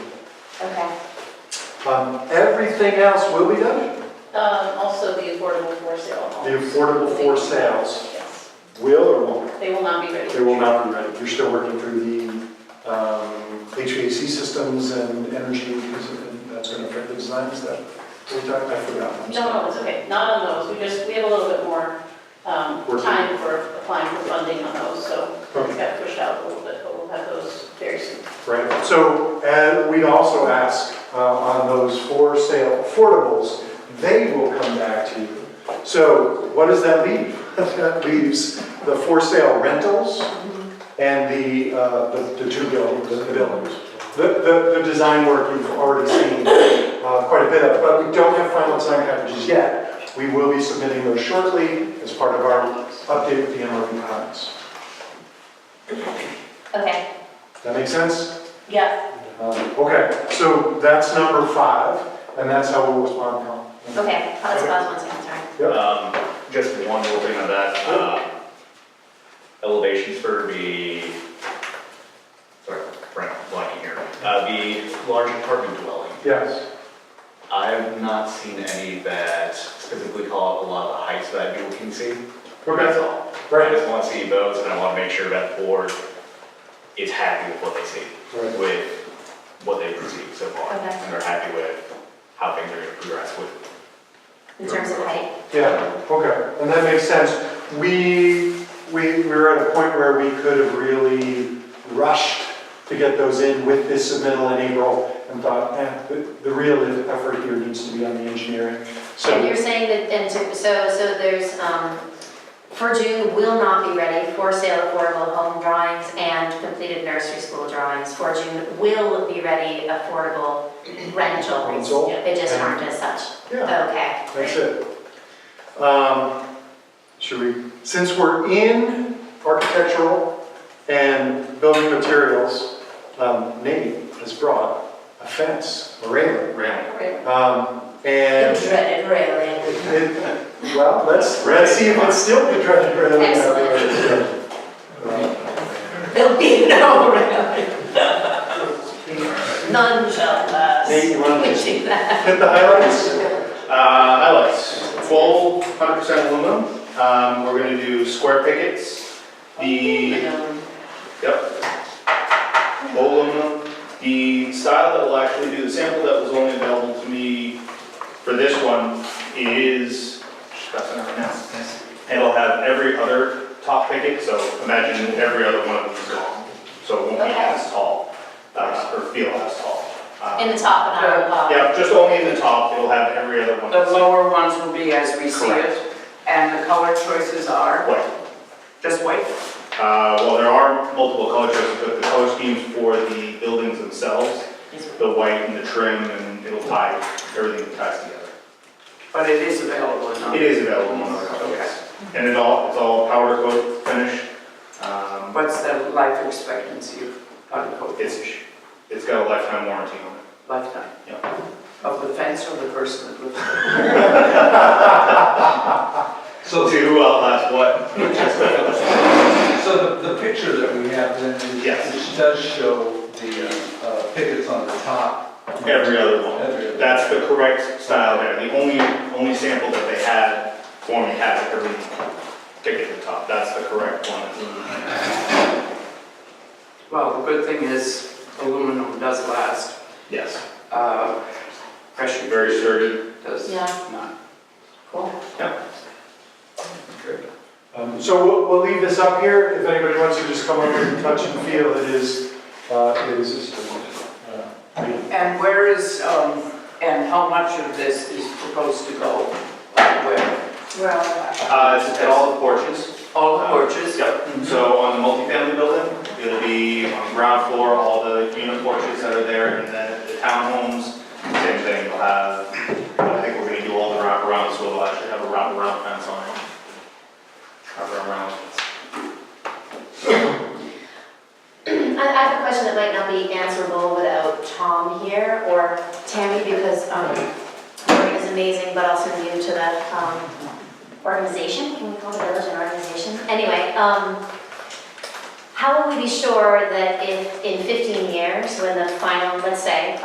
Okay. Um, Everything else will be done. Um, also the affordable for sale homes. The affordable for sales Yes, will or won't? they will not be ready. They will not be ready. You're still working through the um, HVAC systems and energy, because that's going to affect the designs that we talked, I forgot. I'm No, sorry. no, it's okay, not on those, we just, we have a little bit more, um, Working. time for applying for funding on those, so Okay. it's got pushed out a little bit, but we'll have those very soon. Right, so, and we'd also ask uh, on those for sale affordables, they will come back to you. So what does that leave? That leaves the for sale rentals and the, uh, the the two buildings, the buildings. The, the, the design work you've already seen uh, quite a bit of, but we don't have final design packages yet. We will be submitting those shortly as part of our update with the NRV plans. Okay, That make sense? yes, Um, Okay, so that's number five, and that's how we'll respond now. okay, oh, that's what I was wanting to answer. Um, Just one little thing on that. uh, Elevations for the, sorry, Frank, blanking here. Uh, The large apartment dwelling. Yes, I've not seen any that specifically call up a lot of the heights that people can see. That's okay, all. I right, just want to see those, and I want to make sure that board is happy with what they see, right. with what they've received so far. Okay. And they're happy with how things are going to progress with in terms of height. Yeah, okay, and that makes sense. We, we, we were at a point where we could have really rushed to get those in with this submittal in April and thought, eh, the, the real effort here needs to be on the engineering. And So, you're saying that, and so, so so there's, um, for June will not be ready, for sale affordable home drawings and completed nursery school drawings. For June will be ready affordable rentals. Rental, They just aren't as such. yeah, Okay. that's it. Um, Should we, since we're in architectural and building materials, um, Nate has brought a fence, a railing. railing. Okay. Um, The And, dreaded railing. it- well, let's, let's see if it's still the dreaded railing. out there. Uh, There'll be no railing. None shall pass. Nate, you want to Achieve that. hit the highlights? Uh, Highlights, full 100% aluminum. Um, We're going to do square pickets, the, yep, full aluminum. The style that will actually do, the sample that was only available to me for this one is, that's not right now. It'll have every other top picket, so imagine every other one of these long. So it won't be Okay. as tall, uh, or feel as tall. In Uh, the top and not the bottom. Yeah, just only in the top, it'll have every other one. The lower ones will be as we see Correct. it, and the color choices are Like, just white. Uh, Well, there are multiple color choices, but the color schemes for the buildings themselves, the white and the trim, and it'll tie, everything ties together. But it is available in It other. is available on other colors. And it all, it's all powder coat finish. Um, What's the life expectancy of powder coat? It's, it's got a lifetime warranty on it. Lifetime? Yeah. Of the fence or the person that lives there? So, See who outlasts uh, what. so the, the picture that we have then is. Yes. Which does show the uh, pickets on the top. Every other one. Every other- That's the correct style there. The only, only sample that they had for me had every ticket at the top. That's the correct one. Well, the good thing is aluminum does last, Yes. uh, pressure. Very sturdy. Does Yeah. not. Cool. Um, So we'll, we'll leave this up here, if anybody wants to just come over and touch and feel, it is, uh, it is. uh, And where is, um, and how much of this is proposed to go uh, where? Well. Uh, it's at all the porches. All the porches? Mm-hmm. Yep. So on the multifamily building, it'll be on ground floor, all the unit porches that are there, and then the townhomes, same thing, we'll have, I think we're gonna do all the wraparound, so we'll actually have a wraparound fence on it. Wraparound round. I, I have a question that might not be answerable without Tom here or Tammy because, um, Lori is amazing, but also new to the, um, organization. Can we call the village an organization? Anyway, um, how will we be sure that if, in fifteen years, when the final, let's say,